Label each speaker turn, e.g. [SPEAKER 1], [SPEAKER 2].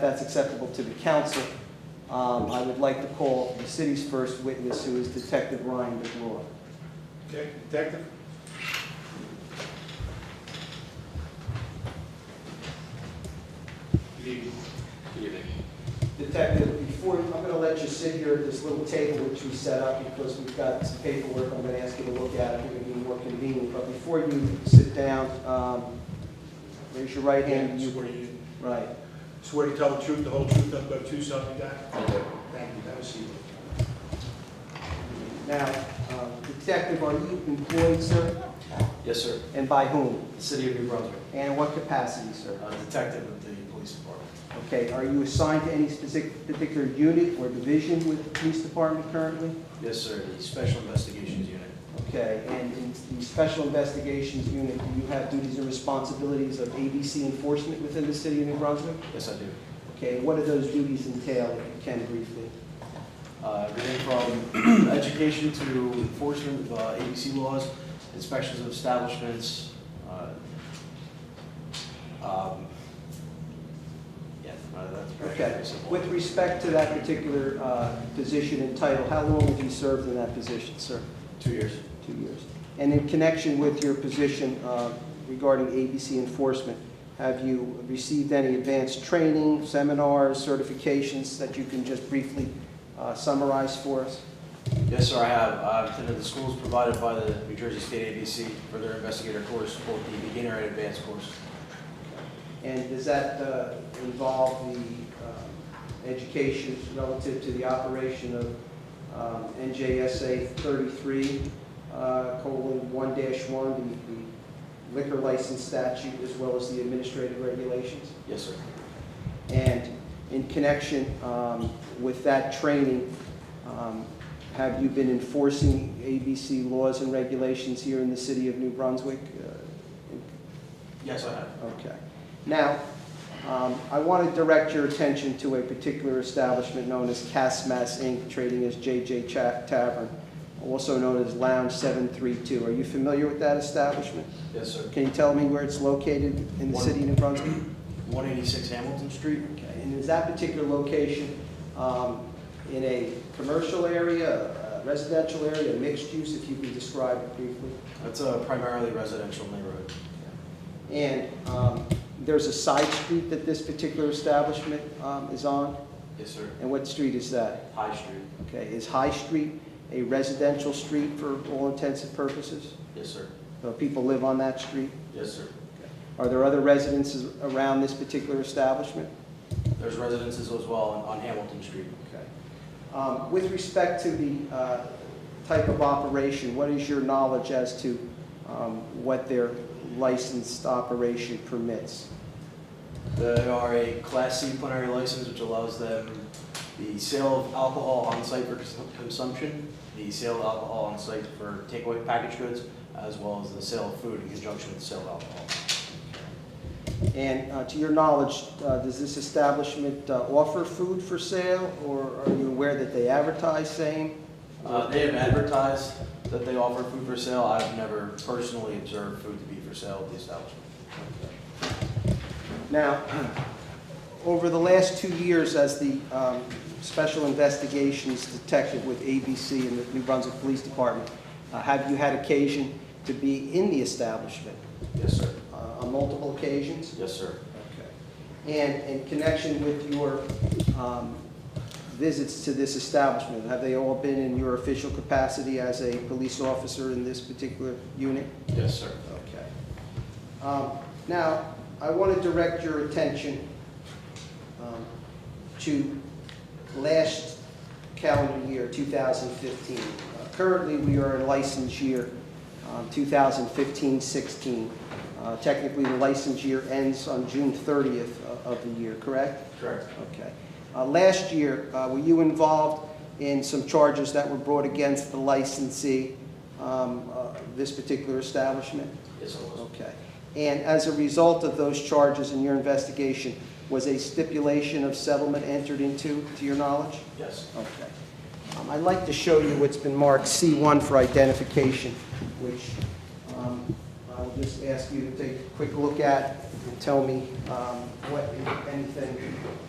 [SPEAKER 1] that's acceptable to the council, um, I would like to call the city's first witness, who is Detective Ryan DeGraw.
[SPEAKER 2] Okay, Detective? Good evening.
[SPEAKER 1] Detective, before, I'm going to let you sit here at this little table which we set up because we've got some paperwork I'm going to ask you to look at, it would be more convenient. But before you sit down, um, raise your right hand.
[SPEAKER 2] You
[SPEAKER 1] You
[SPEAKER 2] swear you,
[SPEAKER 1] Right.
[SPEAKER 2] swear to tell the truth, the whole truth, nothing but the truth, something like that? Thank you, have a seat.
[SPEAKER 1] Now, um, Detective, are you employed, sir,
[SPEAKER 3] Yes, sir.
[SPEAKER 1] and by whom?
[SPEAKER 3] The city of New Brunswick,
[SPEAKER 1] And in what capacity, sir?
[SPEAKER 3] a detective of the police department.
[SPEAKER 1] Okay, are you assigned to any specific particular unit or division with the police department currently?
[SPEAKER 3] Yes, sir, the special investigations unit.
[SPEAKER 1] Okay, and in the Special Investigations Unit, do you have duties and responsibilities of ABC enforcement within the city of New Brunswick?
[SPEAKER 3] Yes, I do.
[SPEAKER 1] Okay, what do those duties entail, if you can briefly?
[SPEAKER 3] Uh, Everything from education to enforcement of uh, ABC laws, inspections of establishments. uh, um, Yeah, uh, that's
[SPEAKER 1] Okay,
[SPEAKER 3] pretty simple.
[SPEAKER 1] with respect to that particular uh, position and title, how long have you served in that position, sir?
[SPEAKER 3] Two years.
[SPEAKER 1] Two years. And in connection with your position uh, regarding ABC enforcement, have you received any advanced training, seminars, certifications that you can just briefly uh, summarize for us?
[SPEAKER 3] Yes, sir, I have. I've attended the schools provided by the New Jersey State ABC for their investigator course, both the beginner and advanced course.
[SPEAKER 1] And does that uh, involve the um, education relative to the operation of um, NJSA 33, uh, colon, 1-1, the- the liquor license statute, as well as the administrative regulations?
[SPEAKER 3] Yes, sir.
[SPEAKER 1] And in connection um, with that training, um, have you been enforcing ABC laws and regulations here in the city of New Brunswick uh, in
[SPEAKER 3] Yes, I have.
[SPEAKER 1] Okay. Now, um, I want to direct your attention to a particular establishment known as Casmas Inc., trading as JJ Cha- Tavern, also known as Lounge 732. Are you familiar with that establishment?
[SPEAKER 3] Yes, sir.
[SPEAKER 1] Can you tell me where it's located in the city of New Brunswick?
[SPEAKER 3] 186 Hamilton Street.
[SPEAKER 1] Okay, and is that particular location um, in a commercial area, a residential area, mixed use, if you can describe it briefly?
[SPEAKER 3] That's a primarily residential neighborhood.
[SPEAKER 1] And um, there's a side street that this particular establishment um, is on?
[SPEAKER 3] Yes, sir.
[SPEAKER 1] And what street is that?
[SPEAKER 3] High Street.
[SPEAKER 1] Okay, is High Street a residential street for all intents and purposes?
[SPEAKER 3] Yes, sir.
[SPEAKER 1] So people live on that street?
[SPEAKER 3] Yes, sir.
[SPEAKER 1] Are there other residences around this particular establishment?
[SPEAKER 3] There's residences as well on- on Hamilton Street.
[SPEAKER 1] Okay. Um, With respect to the uh, type of operation, what is your knowledge as to um, what their licensed operation permits?
[SPEAKER 3] They are a Class C plenary license, which allows them the sale of alcohol on site for cons- consumption, the sale of alcohol on site for takeaway package goods, as well as the sale of food in conjunction with the sale of alcohol.
[SPEAKER 1] And uh, to your knowledge, uh, does this establishment uh, offer food for sale, or are you aware that they advertise same?
[SPEAKER 3] Uh, They have advertised that they offer food for sale. I've never personally observed food to be for sale at the establishment.
[SPEAKER 1] Now, over the last two years as the um, Special Investigations Detective with ABC and the New Brunswick Police Department, uh, have you had occasion to be in the establishment
[SPEAKER 3] Yes, sir.
[SPEAKER 1] uh, on multiple occasions?
[SPEAKER 3] Yes, sir.
[SPEAKER 1] Okay. And in connection with your um, visits to this establishment, have they all been in your official capacity as a police officer in this particular unit?
[SPEAKER 3] Yes, sir.
[SPEAKER 1] Okay. Um, Now, I want to direct your attention um, to last calendar year, 2015. Uh, Currently, we are in license year um, 2015-16. Uh, Technically, the license year ends on June 30th o- of the year, correct?
[SPEAKER 3] Correct.
[SPEAKER 1] Okay. Uh, Last year, uh, were you involved in some charges that were brought against the licensee, um, uh, this particular establishment?
[SPEAKER 3] Yes, I was.
[SPEAKER 1] Okay. And as a result of those charges in your investigation, was a stipulation of settlement entered into, to your knowledge?
[SPEAKER 3] Yes.
[SPEAKER 1] Okay. Um, I'd like to show you what's been marked C1 for identification, which um, I'll just ask you to take a quick look at and tell me um, what, if anything,